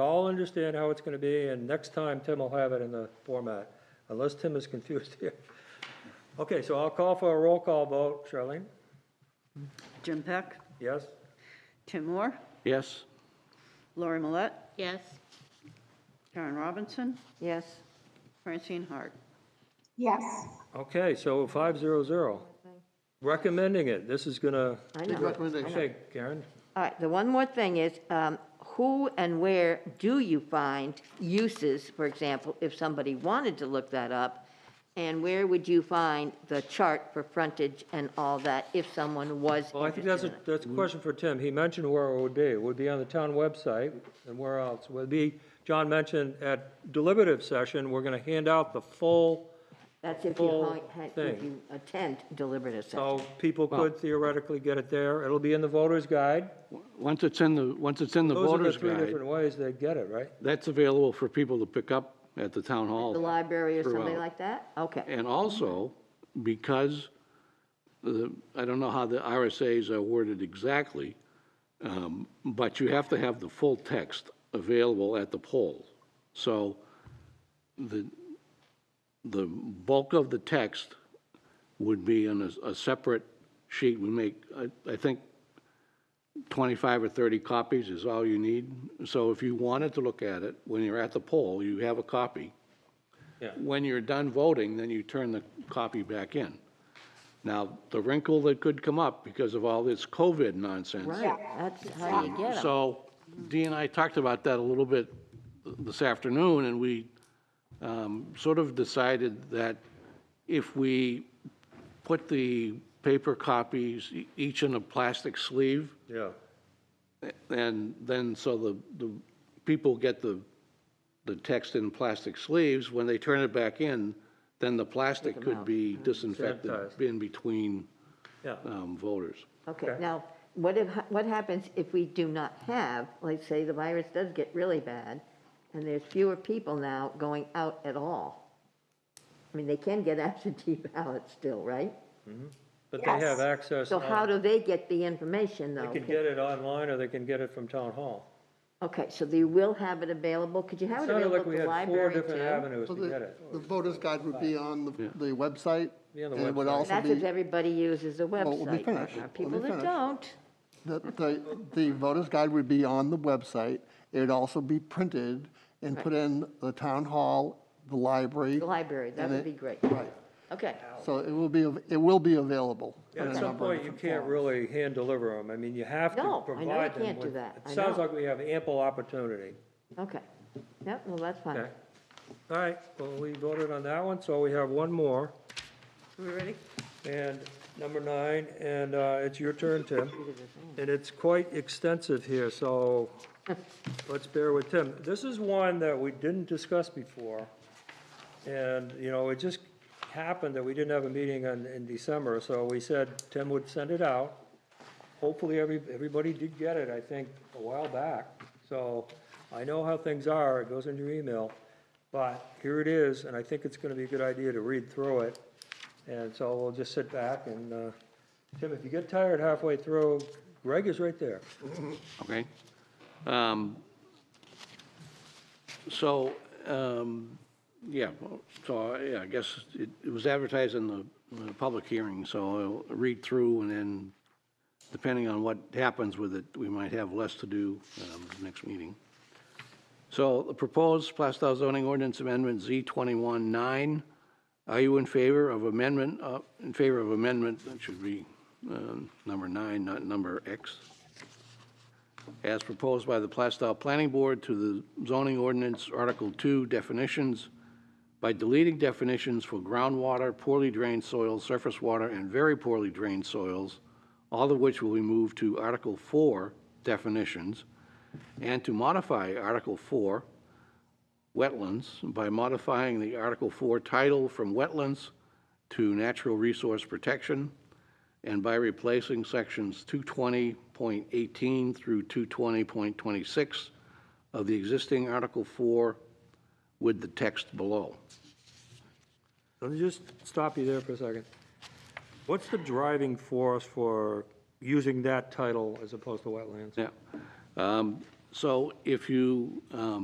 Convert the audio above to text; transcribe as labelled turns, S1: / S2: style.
S1: all understand how it's gonna be, and next time Tim will have it in the format, unless Tim is confused here. Okay, so I'll call for a roll call vote. Charlene?
S2: Jim Peck,
S1: Yes?
S2: Tim Moore,
S3: Yes.
S2: Lori Millette,
S4: Yes.
S2: Karen Robinson. Yes. Francine Hart.
S5: yes,
S1: Okay, so five zero zero. Recommending it. This is gonna,
S6: I
S3: Big
S6: know.
S3: recommendation.
S1: okay, Karen?
S6: All right, the one more thing is, um, who and where do you find uses, for example, if somebody wanted to look that up? And where would you find the chart for frontage and all that if someone was
S1: Well, I think that's
S6: interested
S1: a,
S6: in it?
S1: that's a question for Tim. He mentioned where it would be. It would be on the town website, and where else? Would be, John mentioned at deliberative session, we're gonna hand out the full,
S6: That's if
S1: full
S6: you, hi- hi- if
S1: thing.
S6: you attend deliberative session.
S1: so people could theoretically get it there. It'll be in the voter's guide.
S3: Once it's in the, once it's in the
S1: Those are the
S3: voter's
S1: three
S3: guide,
S1: different ways they get it, right?
S3: that's available for people to pick up at the town hall.
S6: The library or something
S3: throughout.
S6: like that? Okay,
S3: And also, because the, I don't know how the RSAs are worded exactly, um, but you have to have the full text available at the poll. So the, the bulk of the text would be in a, a separate sheet. We make, I, I think 25 or 30 copies is all you need. So if you wanted to look at it, when you're at the poll, you have a copy.
S1: Yeah.
S3: When you're done voting, then you turn the copy back in. Now, the wrinkle that could come up because of all this COVID nonsense.
S6: right, that's how you get them.
S3: So Dee and I talked about that a little bit this afternoon, and we um, sort of decided that if we put the paper copies e- each in a plastic sleeve,
S1: Yeah.
S3: and then, so the, the people get the, the text in plastic sleeves, when they turn it back in, then the plastic could be disinfected
S1: Sanitized.
S3: in between
S1: Yeah.
S3: um, voters.
S6: Okay,
S1: Okay.
S6: now, what if, what happens if we do not have, like, say, the virus does get really bad, and there's fewer people now going out at all? I mean, they can get absentee ballots still, right?
S1: But they have
S5: Yes.
S1: access.
S6: So how
S1: on-
S6: do they get the information,
S1: They
S6: though?
S1: can get it online, or they can get it from town hall.
S6: Okay, so you will have it available, could you have it
S1: Sounded
S6: available
S1: like
S6: at
S1: we
S6: the
S1: had four
S6: library,
S1: different
S6: too?
S1: avenues to
S7: Well,
S1: get
S7: The
S1: it.
S7: the voter's guide would be on the the website.
S1: Be on the
S7: And it would
S1: website.
S7: also
S6: That's
S7: be,
S6: if everybody uses a
S7: we'll be
S6: website.
S7: finished.
S6: There are
S7: We'll be
S6: people that
S7: finished.
S6: don't.
S7: the, the- the voter's guide would be on the website. It'd also be printed and put in the town hall, the library.
S6: The library, that
S7: and
S6: would
S7: it-
S6: be great.
S7: Right.
S6: Okay,
S7: So it will be, av- it will be available. in
S1: At
S7: a
S1: some
S7: number of
S1: point, you
S7: different
S1: can't
S7: forms.
S1: really hand deliver them. I mean, you have
S6: No, I
S1: to
S6: know
S1: provide them.
S6: you can't do
S1: with-
S6: that.
S1: It
S6: I
S1: sounds
S6: know.
S1: like we have ample opportunity.
S6: okay. Yep, well, that's fine.
S1: Okay. All right, well, we voted on that one, so we have one more.
S2: We ready?
S1: And number nine, and uh, it's your turn, Tim. And it's quite extensive here, so let's bear with Tim. This is one that we didn't discuss before. And, you know, it just happened that we didn't have a meeting in, in December, so we said Tim would send it out. Hopefully, every, everybody did get it, I think, a while back. So I know how things are, it goes in your email. But here it is, and I think it's gonna be a good idea to read through it. And so we'll just sit back and, uh, Tim, if you get tired halfway through, Greg is right there.
S3: okay? Um, So, um, yeah, so, yeah, I guess it it was advertised in the, in the public hearing, so I'll read through, and then depending on what happens with it, we might have less to do um, next meeting. So the proposed Plastow zoning ordinance amendment Z 21-9, are you in favor of amendment, uh, in favor of amendment, that should be um, number nine, not number X, as proposed by the Plastow Planning Board to the zoning ordinance, Article 2, definitions, by deleting definitions for groundwater, poorly drained soils, surface water, and very poorly drained soils, all of which will be moved to Article 4, definitions, and to modify Article 4, wetlands, by modifying the Article 4 title from wetlands to natural resource protection, and by replacing sections 220.18 through 220.26 of the existing Article 4 with the text below.
S1: Let me just stop you there for a second. What's the driving force for using that title as opposed to wetlands?
S3: Yeah. Um, So if you, um,